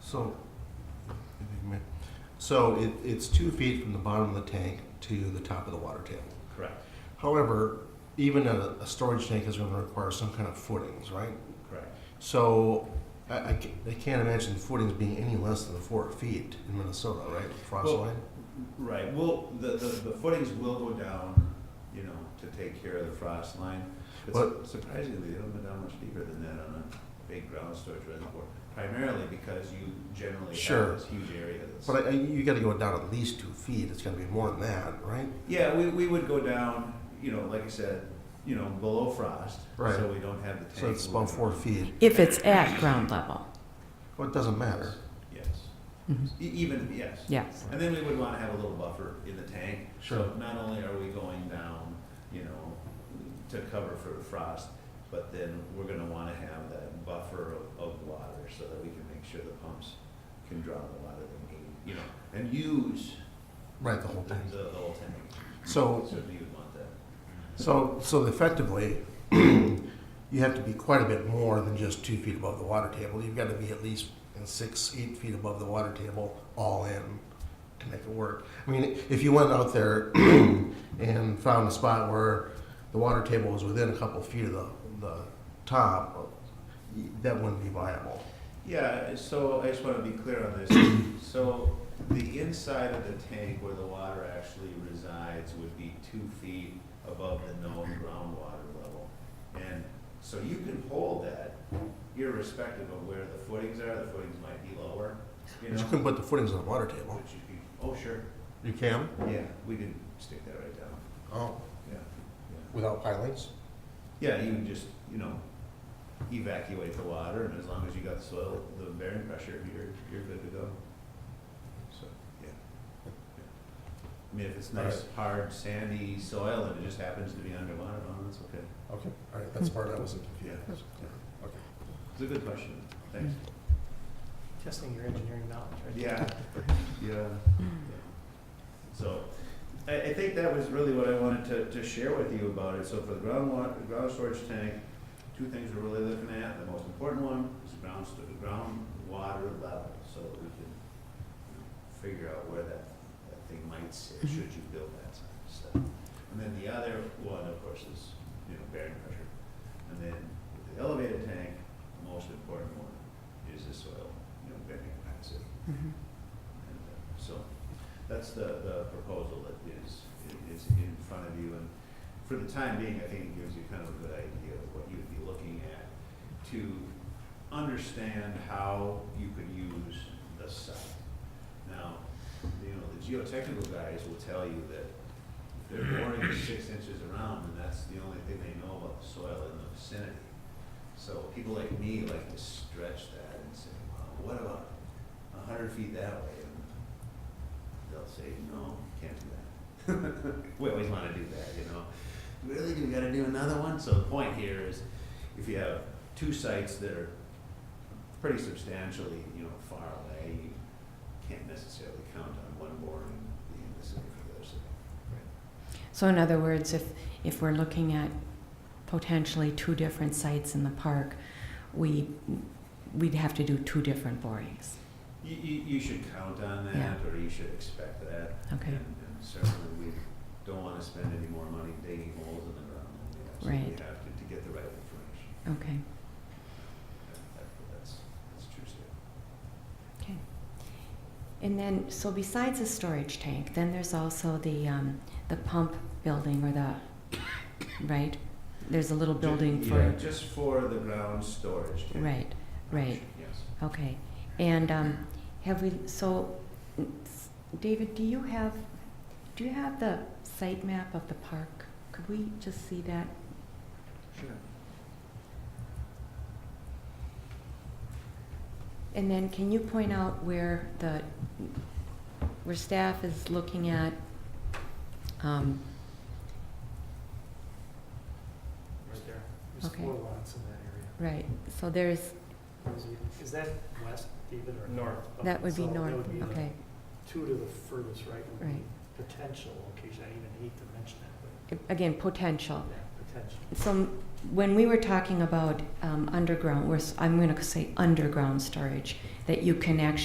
So, so it, it's two feet from the bottom of the tank to the top of the water table. Correct, However, even a, a storage tank is gonna require some kind of footings, right? correct. So, I, I ca- I can't imagine footings being any less than four feet in Minnesota, right, frost Well- line? Right, well, the, the, the footings will go down, you know, to take care of the frost line. But What- surprisingly, they don't go down much deeper than that on a big ground storage reservoir, primarily because you generally Sure. have this huge area that's. But I, I- you gotta go down at least two feet, it's gonna be more than that, right? Yeah, we, we would go down, you know, like I said, you know, below frost, Right. so we don't have the tank. So it's about moving four around. feet, If it's at ground level. well, it doesn't matter. Yes, Mhm. E- even, yes. Yes. And then we would wanna have a little buffer in the tank. So Not only are we going down, you know, to cover for frost, but then we're gonna wanna have that buffer of, of water so that we can make sure the pumps can draw the water they need, you know, and use Right, the whole the, tank. Oh. the whole tank. So, Certainly you'd want that. So, so effectively, you have to be quite a bit more than just two feet above the water table. You've got to be at least in six, eight feet above the water table, all in, to make it work. I mean, if you went out there and found a spot where the water table was within a couple feet of the, the top, that wouldn't be viable. Yeah, so I just want to be clear on this. So the inside of the tank where the water actually resides would be two feet above the known groundwater level. And so you can hold that irrespective of where the footings are, the footings might be lower, But you you know? couldn't put the footings on the water But table. you can, oh, sure, You can? yeah, we can stick that right down, Oh, yeah. without pilings? Yeah, Yeah, you can just, you know, evacuate the water and as long as you got soil, the bearing pressure, you're, you're good to go. So, yeah. Yeah. I mean, if it's nice, hard, sandy soil and it just happens to be underwater, oh, that's okay. Okay, all right, that's the part I wasn't Yeah, confused. Okay. it's a good question, thanks. Testing your engineering knowledge, right? Yeah, yeah. Mm-hmm. So, I, I think that was really what I wanted to, to share with you about it. So for the groundwater, ground storage tank, two things we're really looking at. The most important one is ground, sto- groundwater level, so that we can you know, figure out where that, that thing might sit, should you build that stuff. And then the other one, of course, is, you know, bearing pressure. And then with the elevated tank, the most important one is the soil, you know, bearing capacity. Mhm. And, uh, So that's the, the proposal that is, is in front of you. And for the time being, I think it gives you kind of a good idea of what you'd be looking at to understand how you could use the site. Now, you know, the geotechnical guys will tell you that if they're boring it six inches around, and that's the only thing they know about the soil in the vicinity. So people like me like to stretch that and say, well, what about a hundred feet that way? And they'll say, no, can't do that. We always wanna do that, you know? Really, do we gotta do another one? So the point here is, if you have two sites that are pretty substantially, you know, far away, you can't necessarily count on one boring being the same for the other side. So in other words, if, if we're looking at potentially two different sites in the park, we, we'd have to do two different borings. You, you, you should count on that, Yeah. or you should expect that. Okay, And and certainly, we don't want to spend any more money digging holes in the ground than we absolutely Right. have to, to get the right information. okay, That- That's, that's true, Steve. okay. And then, so besides the storage tank, then there's also the, um, the pump building or the, right? There's a little building Yeah, for, just for the ground storage. tank. right, right. Yes. Okay, and um, have we, so, David, do you have, do you have the site map of the park? Could we just see that? Sure. And then can you point out where the, where staff is looking at, um, Right there. There's Okay. four lots in that area. right, so there's, Is it- Is that west, David, or? North. that would be So north, That would be the okay, two to the furthest right would be Right. potential location. I even hate to mention it, again, potential. but yeah, potential. So when we were talking about um, underground, we're s- I'm going to say underground storage, that you can actually